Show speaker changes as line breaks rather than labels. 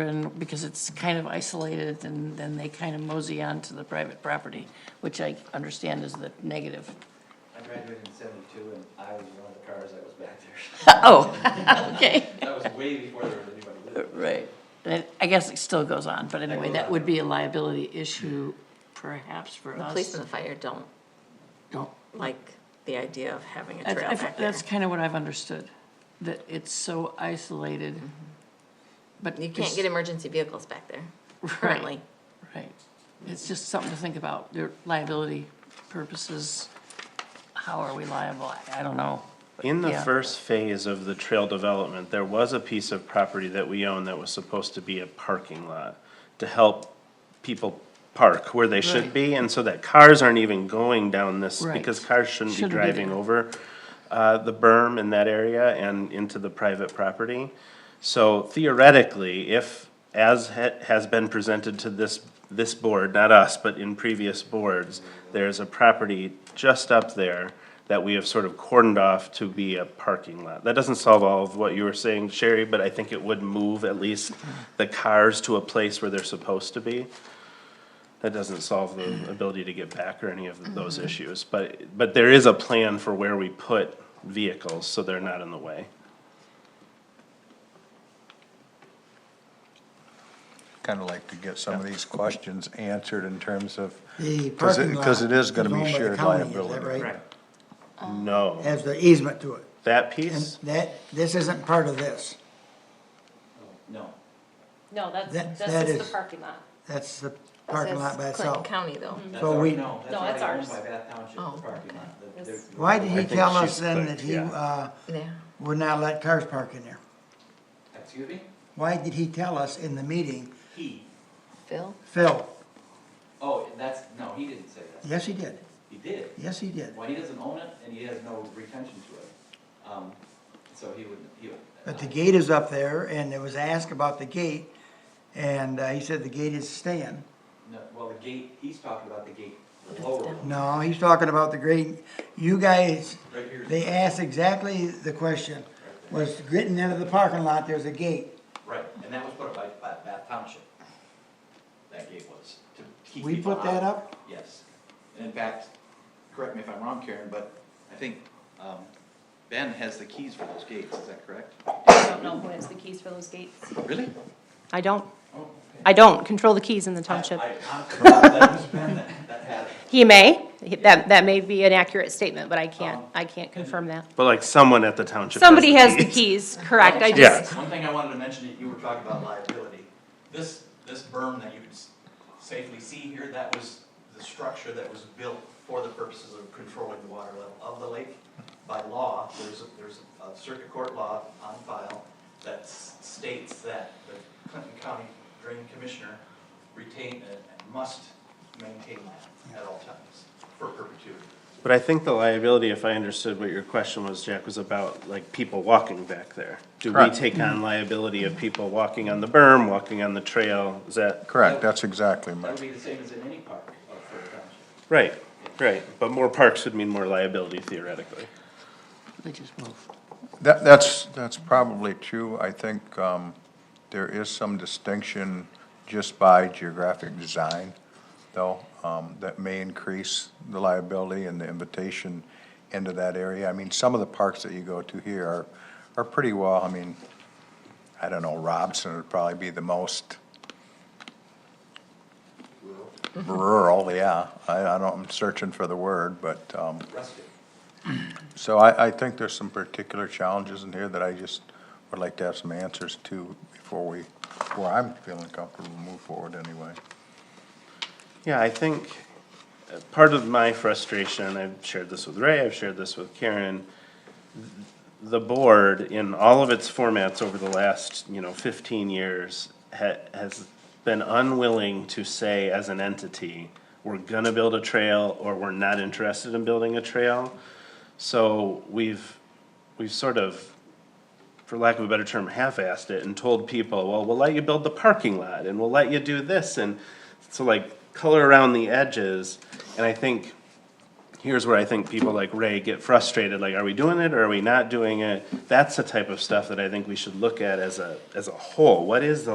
and, because it's kind of isolated, and then they kind of mosey on to the private property, which I understand is the negative.
I graduated in seventy-two and I was one of the cars that was back there.
Oh, okay,
That was way before there was anybody living.
right. I- I guess it still goes on, but anyway, that would be a liability issue perhaps for
The
us.
police and the fire don't
Don't
like the idea of having a trail
That's-
back
I've-
there.
That's kind of what I've understood, that it's so isolated, but.
Mm-hmm. You can't
it's-
get emergency vehicles back there
Right.
currently.
Right. It's just something to think about, their liability purposes. How are we liable? I- I don't know.
In the
Yeah.
first phase of the trail development, there was a piece of property that we owned that was supposed to be a parking lot to help people park where they should
Right.
be, and so that cars aren't even going down this,
Right.
because cars shouldn't be
Shouldn't be
driving
there.
over uh, the berm in that area and into the private property. So theoretically, if, as ha- has been presented to this, this board, not us, but in previous boards, there's a property just up there that we have sort of cordoned off to be a parking lot. That doesn't solve all of what you were saying, Sherry, but I think it would move at least the cars to a place where they're supposed to be. That doesn't solve the
Mm-hmm.
ability to get back or any of those issues, but, but there is a plan for where we put vehicles, so they're not in the way.
kind of like to get some of these questions answered in terms of,
The
Because it-
parking lot.
'cause it is gonna be
owned by the
shared
county, is that
liability.
right?
Oh.
No,
Has the easement to it.
that
And
piece,
that, this isn't part of this.
Oh, No,
No, that's,
That-
that's
that
just the
is-
parking lot.
That's the parking lot by
That's Clinton
itself.
County though.
that's
So
already,
we-
no,
No,
that's already owned
it's ours.
by Bath Township,
Oh,
the parking
okay.
lot. The-
Yes.
there's-
Why did
I
he
think
tell us
she's
then
clicked,
that he,
yeah.
uh,
Mm.
Yeah.
would not let cars park in there?
Excuse me?
Why did he tell us in the meeting,
He,
Phil?
Phil?
oh, that's, no, he didn't say that.
Yes, he did.
He did.
Yes, he did.
Well, he doesn't own it and he has no retention to it. Um, so he wouldn't, he would. uh,
But the gate is up there and there was asked about the gate and uh, he said the gate is staying.
No, well, the gate, he's talking about the gate, the lower one,
No, he's talking about the grade. You guys,
right here.
they asked exactly the question. Was getting into the parking lot, there's a gate.
Right, and that was put up by, by Bath Township. That gate was, to keep people
We put that
out.
up?
Yes, and in fact, correct me if I'm wrong, Karen, but I think, um, Ben has the keys for those gates, is that correct?
I don't know who has the keys for those gates.
Really?
I don't,
Oh,
I don't control the keys in the township.
I, honestly, that was Ben that, that had it.
He may, that, that may be an accurate statement, but I can't,
Um,
I can't confirm that.
but like someone at the township.
Somebody has the
keys.
keys, correct, I
Yeah.
just,
One thing I wanted to mention, that you were talking about liability. This, this berm that you can s- safely see here, that was the structure that was built for the purposes of controlling the water level of the lake. By law, there's, a- there's a circuit court law on file that s- states that the Clinton County Drain Commissioner retain and and must maintain that at all times for perpetuity.
But I think the liability, if I understood what your question was, Jack, was about like people walking back there. Do we take on liability of people walking on the berm, walking on the trail? Is that?
correct, that's exactly my,
That would be the same as in any park of Fort Township.
Right, right. But more parks would mean more liability theoretically.
They just move.
that, that's, that's probably true. I think, um, there is some distinction just by geographic design, though, um, that may increase the liability and the invitation into that area. I mean, some of the parks that you go to here are, are pretty well, I mean, I don't know, Robson would probably be the most rural, yeah. I, I don't, I'm searching for the word, but, um,
Rustic.
So I, I think there's some particular challenges in here that I just would like to have some answers to before we, before I'm feeling comfortable to move forward anyway.
Yeah, I think uh, part of my frustration, and I've shared this with Ray, I've shared this with Karen, th- the board in all of its formats over the last, you know, fifteen years ha- has been unwilling to say as an entity, we're gonna build a trail or we're not interested in building a trail. So we've, we've sort of for lack of a better term, half-assed it and told people, well, we'll let you build the parking lot and we'll let you do this and so like color around the edges. And I think here's where I think people like Ray get frustrated, like, are we doing it or are we not doing it? That's the type of stuff that I think we should look at as a, as a whole. What is the